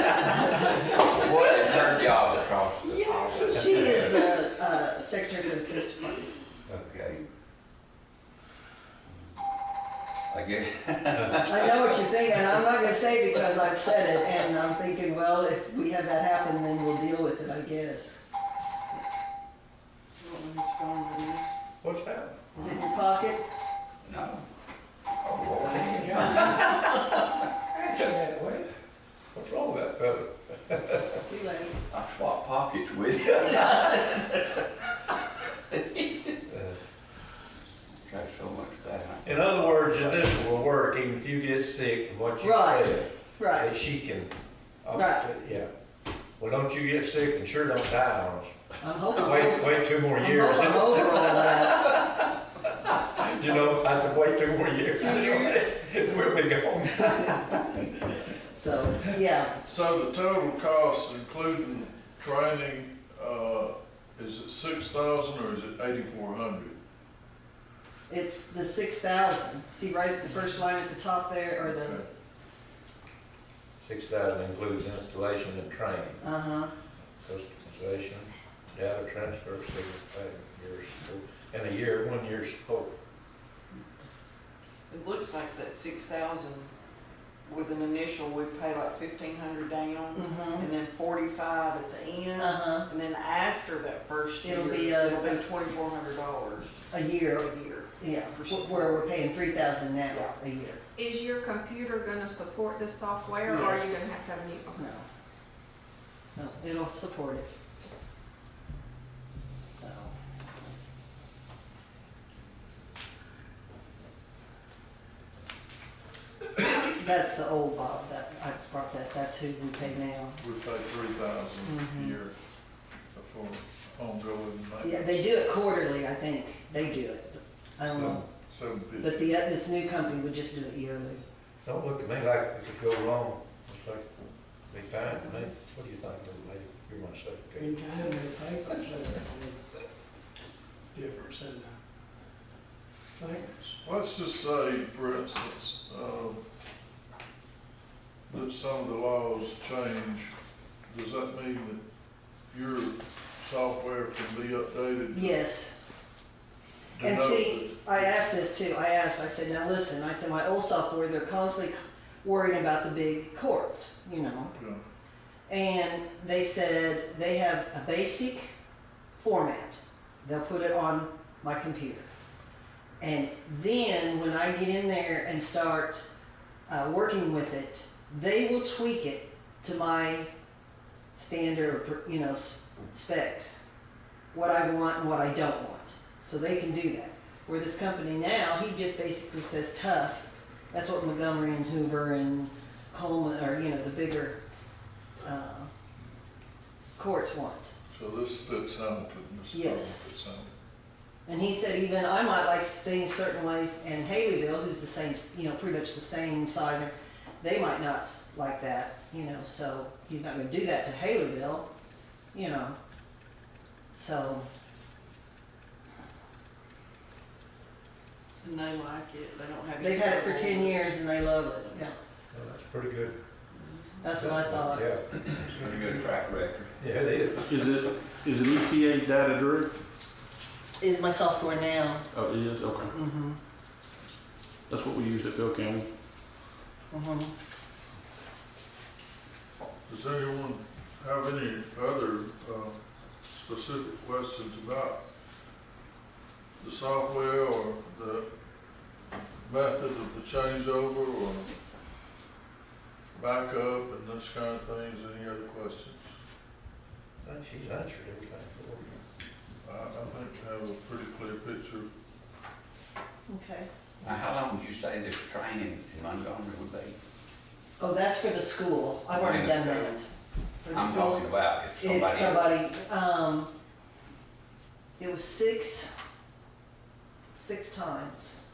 uh, good. I know what you're thinking, I'm not gonna say because I've said it, and I'm thinking, well, if we have that happen, then we'll deal with it, I guess. What's that? Is it in your pocket? No. Oh, Lord. What's wrong with that feather? Too late. I swap pockets with you. Got so much of that. In other words, your initial will work even if you get sick from what you Right, said. Right, That she can. uh, Right. Yeah. Well, don't you get sick and sure don't die on us. I'm hoping, I'm Wait, hoping wait two more I'm years. over all that. You know, I said, wait two more years. Two years. We'll be gone. So, yeah, So the total cost, including training, uh, is it six thousand or is it eighty-four hundred? it's the six thousand, see right at the first line at the top there, or the, Six thousand includes installation and training, uh-huh, customization, data transfer, signal pay, year support, and a year, one year support. It looks like that six thousand with an initial, we pay like fifteen hundred down, mm-hmm, and then forty-five at the end, uh-huh, and then after that first year, It'll it'll be, be uh, twenty-four hundred dollars a a year, year. yeah, wh- where we're paying three thousand now, a year, Is your computer gonna support this software, or are you gonna Yes. have to have a new? no. No, it'll support it. So, that's the old Bob, that, I brought that, that's who we pay now. We pay three thousand Mhm. a year for ongoing Yeah, maintenance. they do it quarterly, I think. They do it. I don't know. Seven But fifty. the, uh, this new company would just do it yearly. Don't look at me like it could go wrong, it's like, be fine to me, what do you think, little lady, you're my secretary. Difference in the things. Let's just say, for instance, uh, that some of the laws change. Does that mean that your software can be updated? to Yes. And note see, I asked this too. I asked, I said, now listen, I said, my old software, they're constantly worrying about the big courts, you know. that, you know, And they said they have a basic format. They'll put it on my computer. And then when I get in there and start uh, working with it, they will tweak it to my standard, you know, s- specs, what I want and what I don't want. So they can do that. Where this company now, he just basically says tough. That's what Montgomery and Hoover and Coleman, or you know, the bigger uh, courts want. So this fits Hamilton, this problem Yes. fits Hamilton. And he said even I might like things certain ways, and Haleyville, who's the same, you know, pretty much the same size, they might not like that, you know. So he's not going to do that to Haleyville, you know. So And they like it, they don't have. they've had it for ten years and they love it. Yeah, Well, that's pretty good. that's what I thought. Yeah, Pretty good track record. yeah, it is. Is it, is it ETA data direct? Is my software now? Oh, it is, okay. Mm-hmm. That's what we used at Phil County. Mm-hmm. Does anyone have any other uh, specific questions about the software or the method of the changeover or backup and those kind of things? Any other questions? I think She's answered everything for you. I, I think we have a pretty clear picture. Okay. Now, how long would you say this training in Montgomery would be? Oh, that's for the school. I've already done that. For the I'm school. talking about if If somebody, somebody, um, it was six, six times.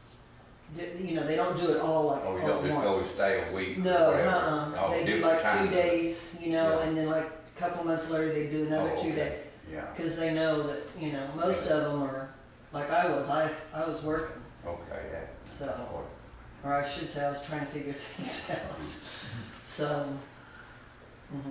Do- You know, they don't do it all like oh, all you don't at just go and once. stay a week or No, whatever. uh-uh, All they do different like two times. days, you know, Yeah. and then like a couple months later, they do another Oh, two okay. day. Yeah, Cause they know that, you know, most of them are, like I was, I, I was working, okay, yeah. so, mm-hmm. or I should say I was trying to figure things out. So,